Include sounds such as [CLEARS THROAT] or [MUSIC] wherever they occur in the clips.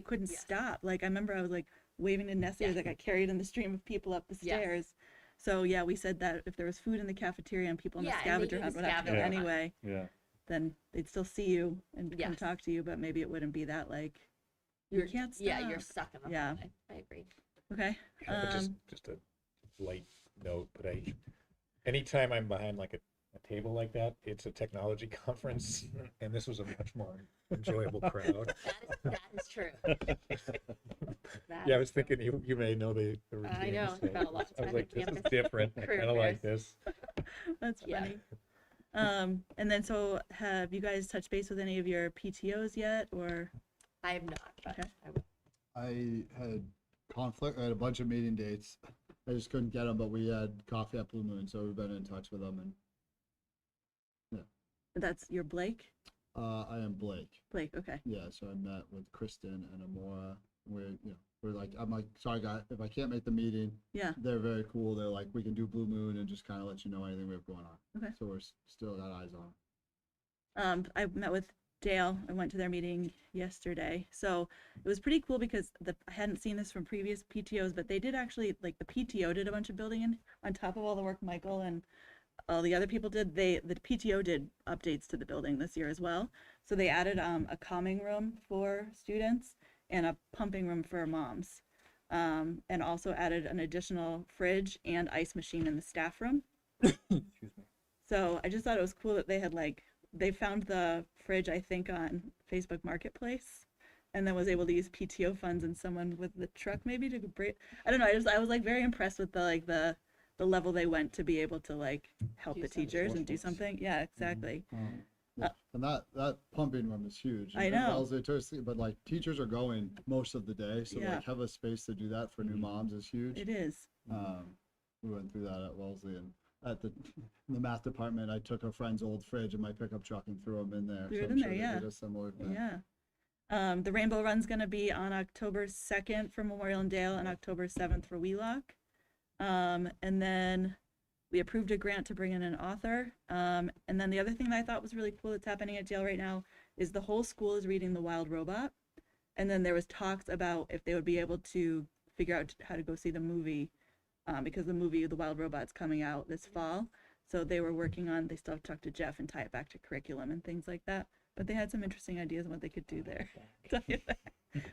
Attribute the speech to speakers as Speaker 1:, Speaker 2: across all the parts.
Speaker 1: couldn't
Speaker 2: Yeah.
Speaker 1: stop. Like I remember I was like waving to Nessie
Speaker 2: Yeah.
Speaker 1: as I got carried in the stream of people up the
Speaker 2: Yes.
Speaker 1: stairs. So yeah, we said that if there was food in the cafeteria and people in
Speaker 2: Yeah,
Speaker 1: the
Speaker 2: and they
Speaker 1: scavenger
Speaker 2: do the
Speaker 1: hunt would have to go
Speaker 2: scavenger hunt.
Speaker 1: anyway,
Speaker 3: Yeah.
Speaker 1: then they'd still see you and come
Speaker 2: Yes.
Speaker 1: talk to you, but maybe it wouldn't be that like you
Speaker 2: You're-
Speaker 1: can't stop.
Speaker 2: Yeah, you're stuck in the
Speaker 1: Yeah.
Speaker 2: hallway. I agree.
Speaker 1: okay. [LAUGHS]
Speaker 4: Yeah, but just
Speaker 1: Um,
Speaker 4: just a light note, but I anytime I'm behind like a, a table like that, it's a technology [LAUGHS] conference, and this was a much more enjoyable
Speaker 2: [LAUGHS]
Speaker 4: crowd.
Speaker 2: That is, that is
Speaker 4: [LAUGHS]
Speaker 2: true. That
Speaker 4: yeah,
Speaker 2: is
Speaker 4: I was
Speaker 2: true.
Speaker 4: thinking you you may know the, the routine.
Speaker 2: I know,
Speaker 4: so
Speaker 2: spent a lot of
Speaker 4: I was
Speaker 2: time
Speaker 4: like,
Speaker 2: at
Speaker 4: this is
Speaker 2: campus
Speaker 4: different. I
Speaker 2: for
Speaker 4: kind of like
Speaker 2: affairs.
Speaker 4: this.
Speaker 1: That's
Speaker 2: Yeah.
Speaker 1: funny. Um, and then so have you guys touched base with any of your PTOs yet or
Speaker 2: I have not, but
Speaker 1: Okay.
Speaker 2: I will.
Speaker 5: I had conflict. I had a bunch of meeting dates. I just couldn't get them, but we had coffee at Blue Moon, so we've been in touch with them. And
Speaker 1: that's your Blake?
Speaker 5: uh, I am Blake.
Speaker 1: Blake, okay.
Speaker 5: Yeah, so I met with Kristen and Amora. We're you know we're like I'm like sorry guys if I can't make the meeting.
Speaker 1: Yeah.
Speaker 5: They're very cool. They're like we can do Blue Moon and just kind of let you know anything we have going on.
Speaker 1: Okay.
Speaker 5: So we're s- still got eyes on.
Speaker 1: um, I met with Dale. I went to their meeting yesterday, so it was pretty cool because the I hadn't seen this from previous PTOs, but they did actually like the PTO did a bunch of building in on top of all the work Michael and all the other people did. They the PTO did updates to the building this year as well. So they added um, a calming room for students and a pumping room for moms, um, and also added an additional fridge and ice machine in the staff room.
Speaker 4: [COUGHS] Excuse me.
Speaker 1: So I just thought it was cool that they had like they found the fridge I think on Facebook Marketplace, and then was able to use PTO funds and someone with the truck maybe to break. I don't know. I just I was like very impressed with the like the the level they went to be able to like help
Speaker 2: Do
Speaker 1: the
Speaker 2: something.
Speaker 1: teachers and do
Speaker 4: Resourceful.
Speaker 1: something. Yeah, exactly.
Speaker 5: Um, Yeah. and that that pumping room is huge.
Speaker 1: I
Speaker 5: It
Speaker 1: know.
Speaker 5: allows it to sleep, but like teachers are going most of the day, so
Speaker 1: Yeah. Mm-hmm.
Speaker 5: like have a space to do that for new moms is huge.
Speaker 4: Mm-hmm.
Speaker 1: It is.
Speaker 5: Um, we went through that at Wellesley and at the [LAUGHS] in the math department. I took a friend's old fridge in my pickup truck and threw them in there.
Speaker 1: Threw it
Speaker 5: I'm
Speaker 1: in there,
Speaker 5: they
Speaker 1: yeah.
Speaker 5: did a similar thing.
Speaker 1: Yeah. Um, the Rainbow Run's gonna be on October second for Memorial and Dale and October seventh for Wheelock. Um, and then we approved a grant to bring in an author. Um, and then the other thing that I thought was really cool that's happening at Dale right now is the whole school is reading The Wild Robot. And then there was talks about if they would be able to figure out how to go see the movie, um, because the movie The Wild Robot's coming out this fall. So they were working on. They still have to talk to Jeff and tie it back to curriculum and things like that. But they had some interesting ideas on what they could
Speaker 2: Oh,
Speaker 1: do there. [LAUGHS] Tell you
Speaker 2: [LAUGHS]
Speaker 1: that.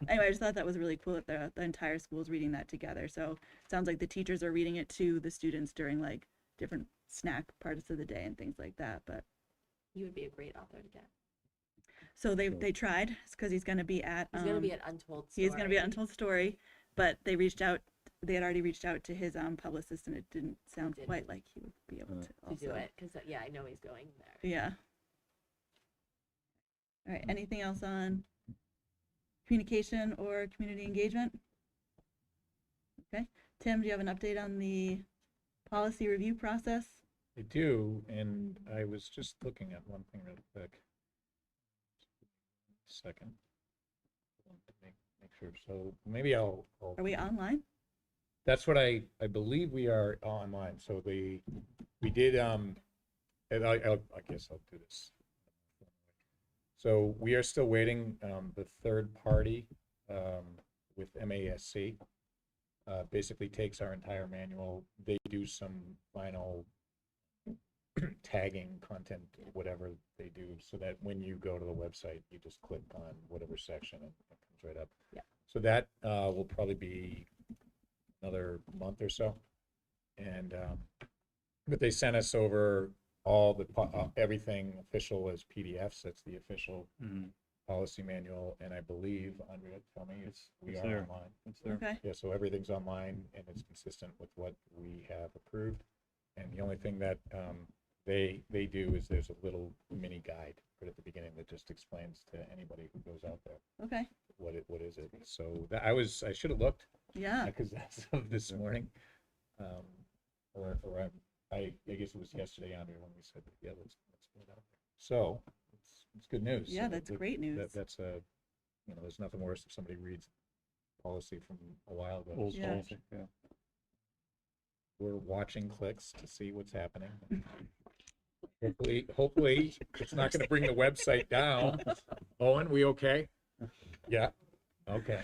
Speaker 1: anyway, I just thought that was really cool that the, the entire school is reading that together. So it sounds like the teachers are reading it to the students during like different snack parts of the day and things like that. But
Speaker 2: You would be a great author to get.
Speaker 1: so they they tried because he's going to be at.
Speaker 2: He's gonna
Speaker 1: um,
Speaker 2: be an untold story.
Speaker 1: He's going to be at Untold Story, but they reached out. They had already reached out to his um publicist, and it didn't sound
Speaker 2: didn't.
Speaker 1: quite like he would be able
Speaker 5: Uh,
Speaker 1: to,
Speaker 2: to do
Speaker 1: also-
Speaker 2: it because yeah, I know he's going there.
Speaker 1: Yeah. All right, anything else on communication or community engagement? Okay, Tim, do you have an update on the policy review process?
Speaker 4: I do, and I was just looking at one thing real quick. Second. Make, make sure. So maybe I'll. I'll
Speaker 1: Are we online?
Speaker 4: That's what I, I believe we are online. So the, we did, um, and I, I'll- I guess I'll do this. So we are still waiting, um, the third party, um, with MASC. Uh, basically takes our entire manual. They do some final [CLEARS THROAT] tagging content, whatever they do, so that when you go to the website, you just click on whatever section and it comes right up.
Speaker 2: Yeah.
Speaker 4: So that, uh, will probably be another month or so. And, um, but they sent us over all the, po- uh, everything official as PDFs. That's the official
Speaker 3: Mhm.
Speaker 4: policy manual. And I believe, Andrea, tell me, it's, we
Speaker 3: It's
Speaker 4: are
Speaker 3: there.
Speaker 4: online.
Speaker 3: That's there.
Speaker 1: Okay,
Speaker 4: Yeah, so everything's online and it's consistent with what we have approved. And the only thing that um, they, they do is there's a little mini guide right at the beginning that just explains to anybody who goes out there
Speaker 1: okay,
Speaker 4: what it, what is it. So that, I was, I should have looked [LAUGHS]
Speaker 1: yeah,
Speaker 4: because that's of this morning. Um, Or, or I'm- I, I guess it was yesterday, Andrea, when we said, yeah, let's, let's put it out there. So it's, it's good news.
Speaker 1: yeah,
Speaker 4: So
Speaker 1: that's
Speaker 4: that-
Speaker 1: great news.
Speaker 4: that, that's a, you know, there's nothing worse if somebody reads policy from a while ago.
Speaker 3: Old
Speaker 1: Yeah.
Speaker 3: policy, yeah.
Speaker 4: we're watching clicks to see what's happening. Hopefully, hopefully, it's not gonna bring the website down. Owen, we okay? Yeah, okay.